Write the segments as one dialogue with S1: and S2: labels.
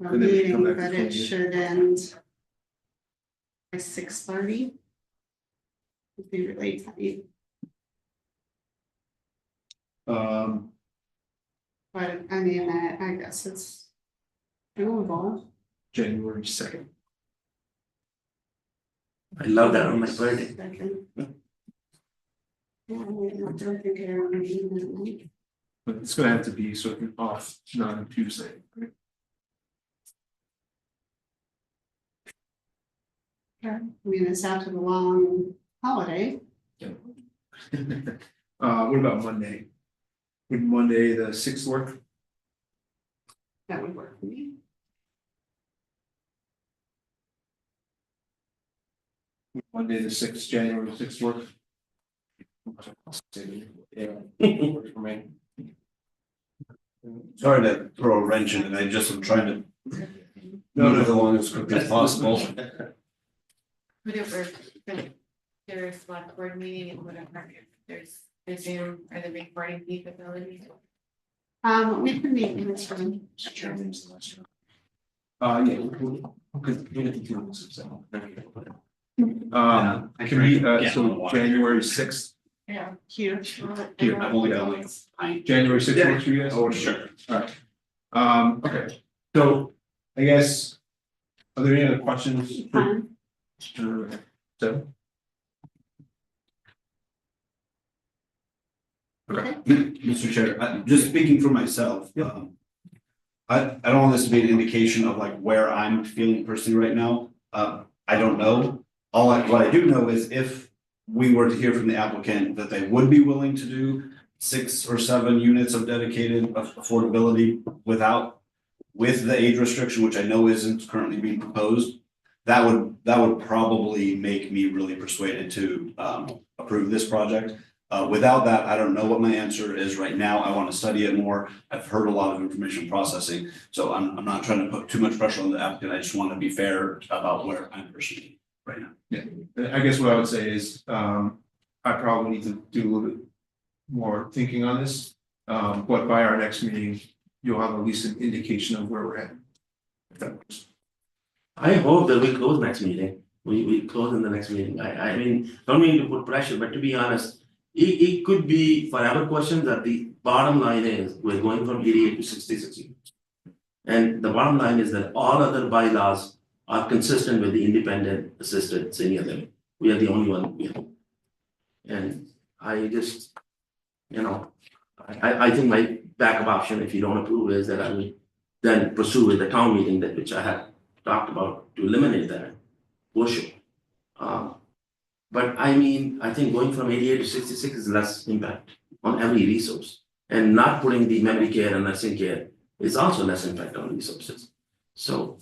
S1: our
S2: And then you come
S1: meeting,
S2: back to
S1: that it
S2: 12.
S1: should end by six thirty. Would be really tight,
S2: Um,
S1: but I mean, I, I guess it's doable.
S2: January second.
S3: I love that on my birthday.
S1: Second. Yeah, I mean, I don't think I want to be in that late.
S2: But it's gonna have to be sort of off, not on Tuesday.
S1: I mean, it's after the long holiday,
S2: Uh, what about Monday? Would Monday, the sixth work?
S1: that would work for me.
S2: Would Monday, the sixth, January sixth work? Uh, Yeah. works For me.
S4: Sorry to throw a wrench in it, I just am trying to
S2: No,
S4: move it
S2: no.
S4: along as quickly as possible.
S5: Would it work if there is select board meeting and whatever, if there's the Zoom or the recording capability?
S1: Um, we can meet in this room.
S2: Uh, yeah, because you get the two weeks of summer. Um, can we, uh, so January sixth,
S1: Yeah, huge.
S2: Here, I've only got a link. January sixth works for you guys?
S4: Oh, sure.
S2: Um, okay, so I guess, are there any other questions for
S1: Fun.
S2: Sure. So. Okay.
S4: Mr. Chair, I- just speaking for myself, um. I, I don't want this to be an indication of like where I'm feeling personally right now, uh, I don't know. All I, what I do know is if we were to hear from the applicant that they would be willing to do six or seven units of dedicated aff- affordability without. With the age restriction, which I know isn't currently being proposed, that would, that would probably make me really persuaded to, um, approve this project. Uh, without that, I don't know what my answer is right now. I want to study it more. I've heard a lot of information processing. So I'm, I'm not trying to put too much pressure on the applicant. I just want to be fair about where I'm personally right now.
S2: I guess what I would say is, um, I probably need to do a little bit more thinking on this. Um, but by our next meeting, you'll have at least an indication of where we're at. If that works.
S3: I hope that we close next meeting. We we close in the next meeting. I I mean, don't mean to put pressure, but to be honest. It it could be forever questions that the bottom line is we're going from eighty eight to sixty six. units. And the bottom line is that all other bylaws are consistent with the independent assisted senior living. We are the only one, we have. And I just, you know, I I I think my backup option, if you don't approve, is that I will then pursue with the town meeting that which I had talked about to eliminate that worship. Uh, but I mean, I think going from eighty-eight to sixty-six is less impact on every resource. And not putting the memory care and nursing care is also less impact on resources. So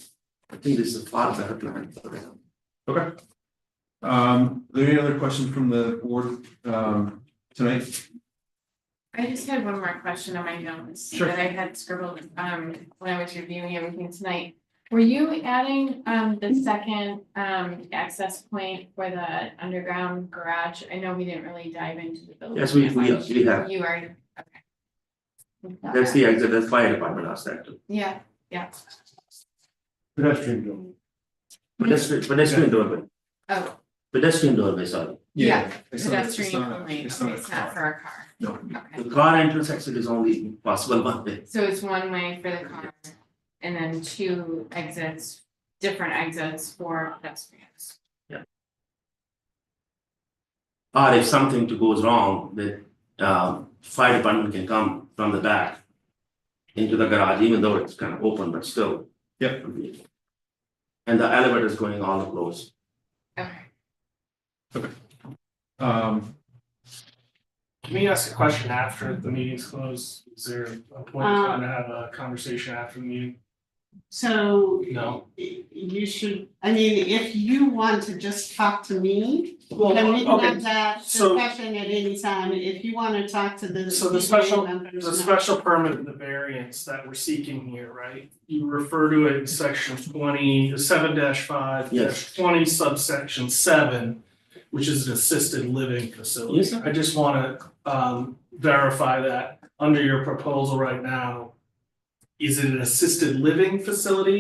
S3: I think this is a far better plan for them.
S2: Um, are there any other questions from the board, um, tonight?
S5: I just had one more question on my notes
S2: Sure.
S5: that I had scribbled um when I was reviewing everything tonight. Were you adding um the second um access point for the underground garage? I know we didn't really dive into the building.
S3: Yes, we-
S5: that
S3: we-
S5: much.
S3: we have.
S5: You are, okay.
S3: That's the exit, that's fire department asked that too.
S5: Yeah, yeah,
S2: Pedestrian bill.
S3: Pedestrian, pedestrian doorway,
S5: oh,
S3: pedestrian doorway, sorry.
S2: Yeah. it's not- it's
S5: pedestrian
S2: not-
S5: only,
S2: It's
S5: okay,
S2: not a
S5: it's not
S2: car.
S5: for a car,
S2: No,
S5: okay.
S3: The car entrance exit is only possible one way.
S5: So it's one way for the car and then two exits, different exits for pedestrians.
S3: Or if something to goes wrong, the um fire department can come from the back. Into the garage, even though it's kind of open, but still.
S2: Yep.
S3: And the elevator is going all across.
S5: Okay.
S2: um,
S6: Can we ask a question after the meeting's closed? Is there a point
S1: Um,
S6: in time to have a conversation after the meeting?
S1: So
S6: No.
S1: y- you should, I mean, if you want to just talk to me, then we can have that
S6: so-
S1: discussion at any time. If you want to talk to the
S6: So the
S1: ZBA
S6: special-
S1: members,
S6: There's a
S1: no.
S6: special permit and the variance that we're seeking here, right? You refer to it in section twenty, seven five,
S3: Yes.
S6: twenty subsection seven, which is an assisted living facility.
S3: Yes, sir.
S6: I just wanna um verify that under your proposal right now, is it an assisted living facility